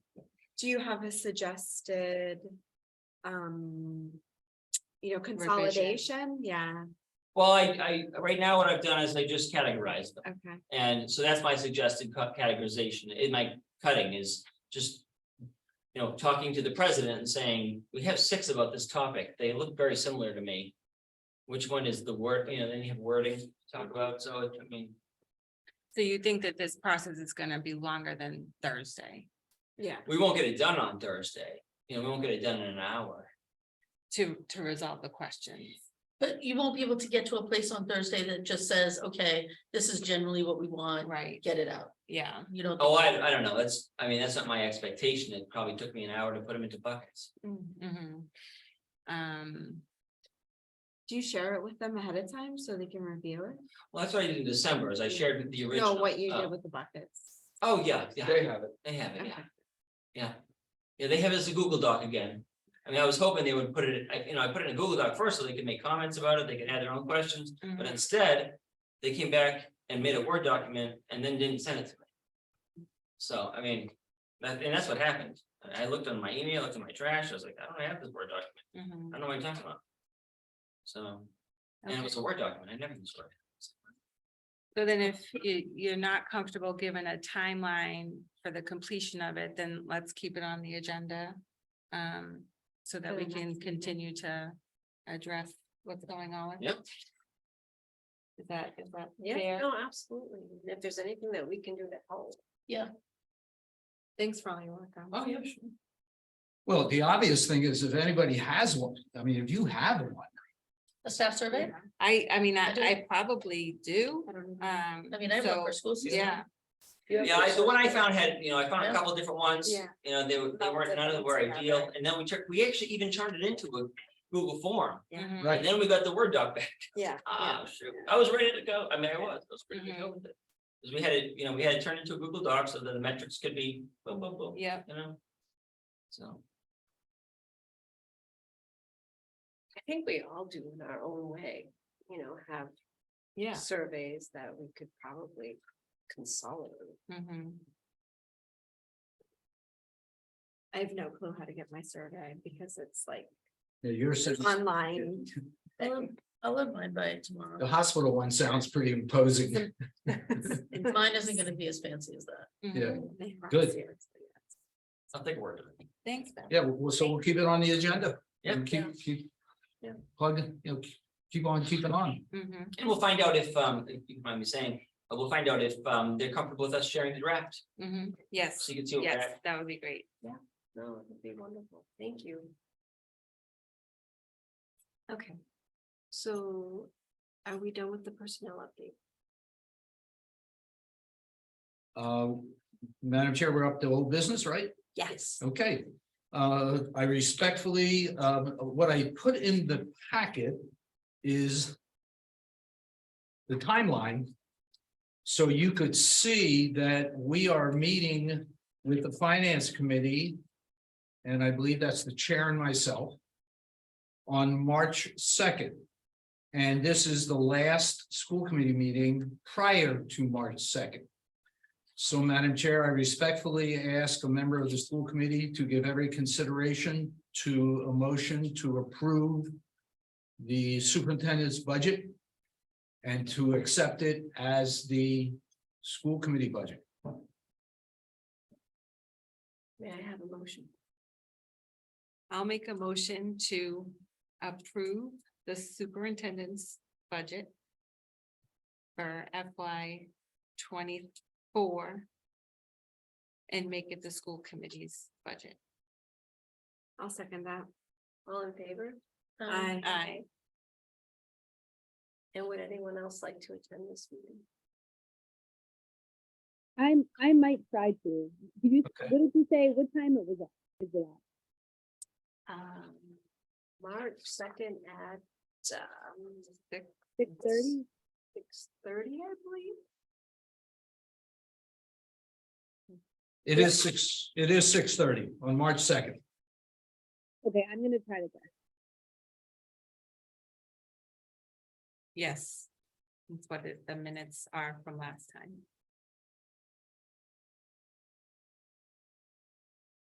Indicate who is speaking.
Speaker 1: do you have a suggested? Um, you know,
Speaker 2: Revision.
Speaker 1: consolidation, yeah,
Speaker 3: Well, I, I, right now what I've done is I just categorized them.
Speaker 1: okay,
Speaker 3: And so that's my suggested cut categorization in my cutting is just. You know, talking to the president and saying, we have six about this topic. They look very similar to me. Which one is the word, you know, then you have wording to talk about. So I mean,
Speaker 2: So you think that this process is gonna be longer than Thursday
Speaker 1: yeah,
Speaker 3: we won't get it done on Thursday. You know, we won't get it done in an hour.
Speaker 2: to, to resolve the questions?
Speaker 4: But you won't be able to get to a place on Thursday that just says, okay, this is generally what we want,
Speaker 2: Right,
Speaker 4: get it out,
Speaker 2: yeah,
Speaker 4: you don't.
Speaker 3: Oh, I, I don't know. That's, I mean, that's not my expectation. It probably took me an hour to put them into buckets.
Speaker 1: Mm.
Speaker 2: mhm. Um,
Speaker 1: do you share it with them ahead of time so they can review it?
Speaker 3: Well, that's what I did in December is I shared the
Speaker 1: No,
Speaker 3: original.
Speaker 1: what you
Speaker 3: uh,
Speaker 1: did with the buckets,
Speaker 3: Oh, yeah, yeah.
Speaker 5: They have it.
Speaker 3: They have it, yeah,
Speaker 1: okay,
Speaker 3: yeah. Yeah, they have it as a Google Doc again. I mean, I was hoping they would put it, I, you know, I put it in a Google Doc first so they could make comments about it, they could add their own questions, but
Speaker 2: mhm.
Speaker 3: instead. They came back and made a Word document and then didn't send it to me. So, I mean, that, and that's what happened. I- I looked on my email, looked in my trash, I was like, I don't have this Word document, I
Speaker 2: Mhm.
Speaker 3: don't know what you're talking about. So, and it was a
Speaker 2: Okay.
Speaker 3: Word document, I never used Word.
Speaker 2: So then if you, you're not comfortable given a timeline for the completion of it, then let's keep it on the agenda. Um, so that
Speaker 1: For
Speaker 2: we
Speaker 1: the
Speaker 2: can
Speaker 1: next meeting.
Speaker 2: continue to address what's going on. with it.
Speaker 3: Yep.
Speaker 2: Is that, is that
Speaker 6: Yeah,
Speaker 2: fair?
Speaker 6: no, absolutely. And If there's anything that we can do to help.
Speaker 2: Thanks for all your work on.
Speaker 3: Oh, yeah, sure.
Speaker 5: Well, the obvious thing is if anybody has one, I mean, if you have one,
Speaker 4: A staff survey?
Speaker 2: I, I mean, I,
Speaker 4: I do.
Speaker 2: I probably do,
Speaker 6: I don't know.
Speaker 2: um.
Speaker 4: Mm-hmm. I mean, I work
Speaker 2: so,
Speaker 4: for school system.
Speaker 2: Yeah,
Speaker 3: Yeah, I- the one I found had, you know, I found a
Speaker 4: Yeah.
Speaker 3: couple different ones,
Speaker 2: Yeah.
Speaker 3: you know, they were, they
Speaker 2: Lots
Speaker 3: weren't,
Speaker 2: of
Speaker 3: none of them
Speaker 2: things
Speaker 3: were
Speaker 2: about
Speaker 3: ideal,
Speaker 2: that.
Speaker 3: and then we took, we actually even turned it into a Google form.
Speaker 2: mhm.
Speaker 3: And
Speaker 5: right?
Speaker 3: then we got the Word doc back,
Speaker 6: Yeah.
Speaker 3: ah, shoot, I was ready to go, I mean, I was, I was ready to go with it. Cause we had it, you know, we had it turned into a Google Doc so that the metrics could be boom, boom, boom, you
Speaker 2: yeah,
Speaker 3: know? So,
Speaker 6: I think we all do in our own way, you know, have
Speaker 2: yeah.
Speaker 6: surveys that we could probably consolidate.
Speaker 2: mhm.
Speaker 6: I have no clue how to get my survey because it's like
Speaker 5: Yeah, Yours, is-
Speaker 6: online.
Speaker 4: I'll I'll have mine by tomorrow.
Speaker 5: the hospital one sounds pretty imposing.
Speaker 4: Mine isn't gonna be as fancy as that.
Speaker 5: Yeah,
Speaker 2: mhm.
Speaker 5: good.
Speaker 3: I'll take a word of it.
Speaker 2: Thanks, Beth.
Speaker 5: Yeah, well, so we'll keep it on the agenda.
Speaker 3: Yeah.
Speaker 5: And Keep, keep.
Speaker 6: Yeah.
Speaker 5: Plug, it, you know, keep on, keep it on.
Speaker 2: Mhm.
Speaker 3: And we'll find out if, um, if you mind me saying, uh, we'll find out if, um, they're comfortable with us sharing the draft,
Speaker 2: Mhm. Yes,
Speaker 3: so you can see. what
Speaker 2: yes,
Speaker 3: draft-
Speaker 2: that would be great.
Speaker 6: No, it would be wonderful. Thank you. Okay, so are we done with the personnel update?
Speaker 5: Uh, Madam Chair, we're up to old business, right?
Speaker 6: Yes.
Speaker 5: Okay, uh, I respectfully, um, what I put in the packet is. The timeline. So you could see that we are meeting with the finance committee. And I believe that's the chair and myself. On March second. And this is the last school committee meeting prior to March second. So Madam Chair, I respectfully ask a member of the school committee to give every consideration to a motion to approve the superintendent's budget and to accept it as the school committee budget.
Speaker 6: May I have a motion?
Speaker 2: I'll make a motion to approve the superintendent's budget for FY twenty-four and make it the school committee's budget.
Speaker 1: I'll second that,
Speaker 6: All in favor?
Speaker 4: Um,
Speaker 1: Aye.
Speaker 2: Aye.
Speaker 6: And would anyone else like to attend this meeting?
Speaker 7: I'm, I might try to. Did you,
Speaker 5: Okay.
Speaker 7: what did you say? What time it was at? Is it at?
Speaker 6: Um, March second at, um,
Speaker 7: Six thirty?
Speaker 6: six thirty, I believe.
Speaker 5: It is six, it is six thirty on March second.
Speaker 7: Okay, I'm gonna try to guess.
Speaker 2: Yes. That's what it- the minutes are from last time.